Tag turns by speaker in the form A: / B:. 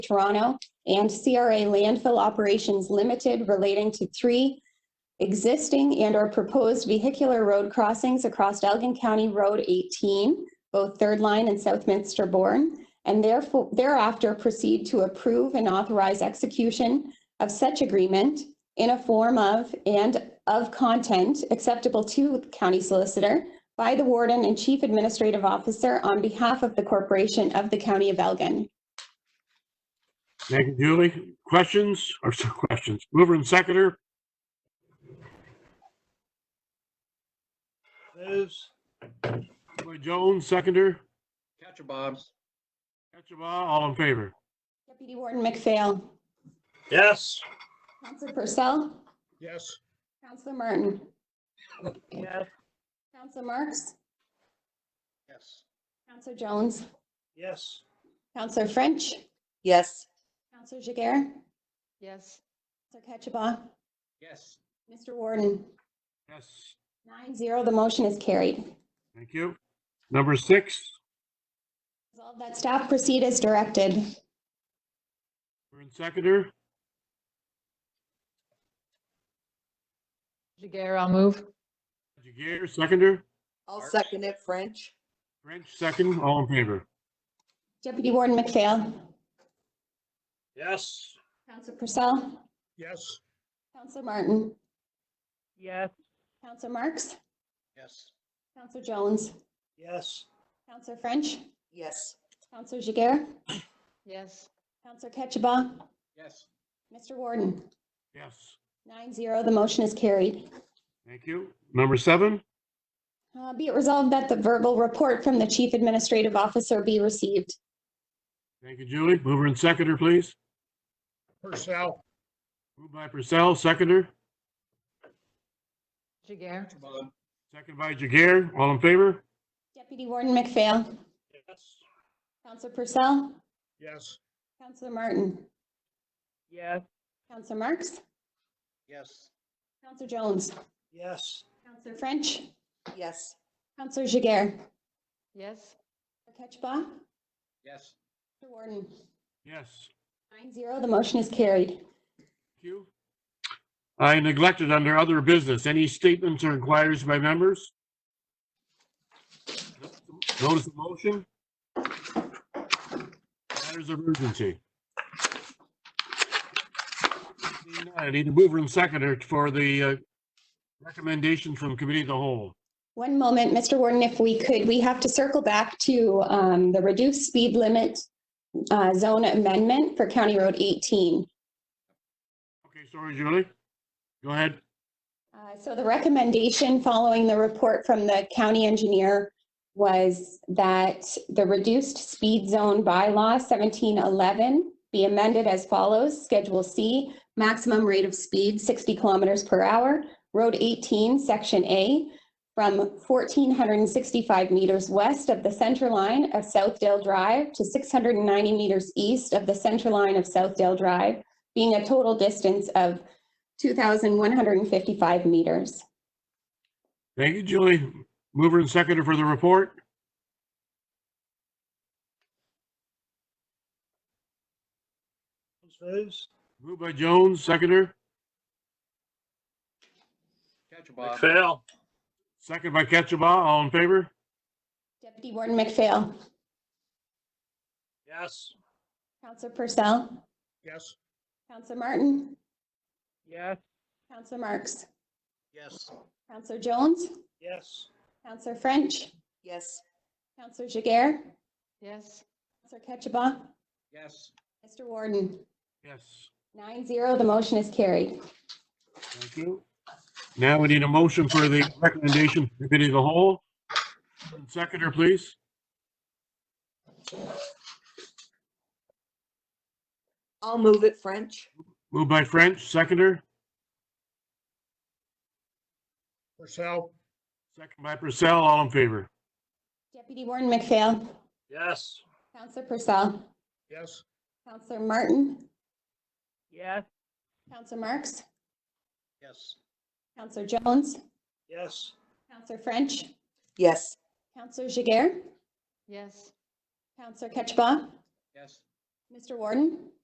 A: Toronto and CRA Landfill Operations Limited relating to three existing and or proposed vehicular road crossings across Elgin County Road 18, both Third Line and Southminster Bourne, and therefore thereafter proceed to approve and authorize execution of such agreement in a form of and of content acceptable to the county solicitor by the warden and chief administrative officer on behalf of the corporation of the county of Elgin.
B: Thank you, Julie. Questions or so- questions? Mover and seconder,
C: Moves.
B: by Jones, seconder.
C: Catcher Bob's.
B: Ketchabah, all in favor.
A: Deputy Warden McPhail.
C: Yes.
A: Counselor Purcell.
C: Yes.
A: Counselor Martin.
C: Yes.
A: Counselor Marks.
C: Yes.
A: Counselor Jones.
C: Yes.
A: Counselor French.
D: Yes.
A: Counselor Jiguer.
D: Yes.
A: Counselor Ketchabah.
C: Yes.
A: Mr. Warden.
B: Yes,
A: Nine zero, the motion is carried.
B: thank you. Number six,
A: Resolved that staff proceed as directed.
B: mover and seconder,
E: Jagger, I'll move.
B: Jagger, seconder,
D: I'll
C: March.
D: second it, French.
B: French, second, all in favor.
A: Deputy Warden McPhail.
C: Yes.
A: Counselor Purcell.
C: Yes.
A: Counselor Martin.
E: Yes.
A: Counselor Marks.
C: Yes.
A: Counselor Jones.
C: Yes.
A: Counselor French.
D: Yes.
A: Counselor Jiguer.
E: Yes.
A: Counselor Ketchabah.
C: Yes.
A: Mr. Warden.
B: Yes,
A: Nine zero, the motion is carried.
B: thank you. Number seven,
A: Uh, Be it resolved that the verbal report from the Chief Administrative Officer be received.
B: thank you, Julie. Mover and seconder, please.
C: Purcell.
B: Moved by Purcell, seconder,
E: Jagger,
B: second by Jagger, all in favor.
A: Deputy Warden McPhail.
C: Yes.
A: Counselor Purcell.
C: Yes.
A: Counselor Martin.
E: Yes.
A: Counselor Marks.
C: Yes.
A: Counselor Jones.
C: Yes.
A: Counselor French.
D: Yes.
A: Counselor Jiguer.
E: Yes.
A: Ketchba.
C: Yes.
A: Mr. Warden.
B: Yes,
A: Nine zero, the motion is carried.
B: thank you. I neglected under other business, any statements or inquiries by members? Notice of motion? Matters of urgency. I need a mover and seconder for the uh, recommendations from committee of the whole.
A: One moment, Mr. Warden, if we could, we have to circle back to um, the reduced speed limit uh, zone amendment for County Road 18.
B: Okay, sorry, Julie. Go ahead.
A: Uh, So the recommendation following the report from the county engineer was that the reduced speed zone bylaw 1711 be amended as follows. Schedule C, maximum rate of speed 60 kilometers per hour. Road 18, Section A, from 1,465 meters west of the center line of Southdale Drive to 690 meters east of the center line of Southdale Drive, being a total distance of 2,155 meters.
B: Thank you, Julie. Mover and seconder for the report.
C: Moves.
B: Moved by Jones, seconder,
C: Catcher Bob. Fail.
B: second by Ketchabah. All in favor?
A: Deputy Warden McPhail.
C: Yes.
A: Counselor Purcell.
C: Yes.
A: Counselor Martin.
E: Yes.
A: Counselor Marks.
C: Yes.
A: Counselor Jones.
C: Yes.
A: Counselor French.
D: Yes.
A: Counselor Jiguer.
E: Yes.
A: Counselor Ketchabah.
C: Yes.
A: Mr. Warden.
B: Yes.
A: Nine zero, the motion is carried.
B: Thank you. Now we need a motion for the recommendation for committee of the whole. Seconder, please.
D: I'll move it, French.
B: Moved by French, seconder,
C: Purcell.
B: second by Purcell, all in favor.
A: Deputy Warden McPhail.
C: Yes.
A: Counselor Purcell.
C: Yes.
A: Counselor Martin.
E: Yes.
A: Counselor Marks.
C: Yes.
A: Counselor Jones.
C: Yes.
A: Counselor French.
D: Yes.
A: Counselor Jiguer.
E: Yes.
A: Counselor Ketchabah.
C: Yes.
A: Mr. Warden?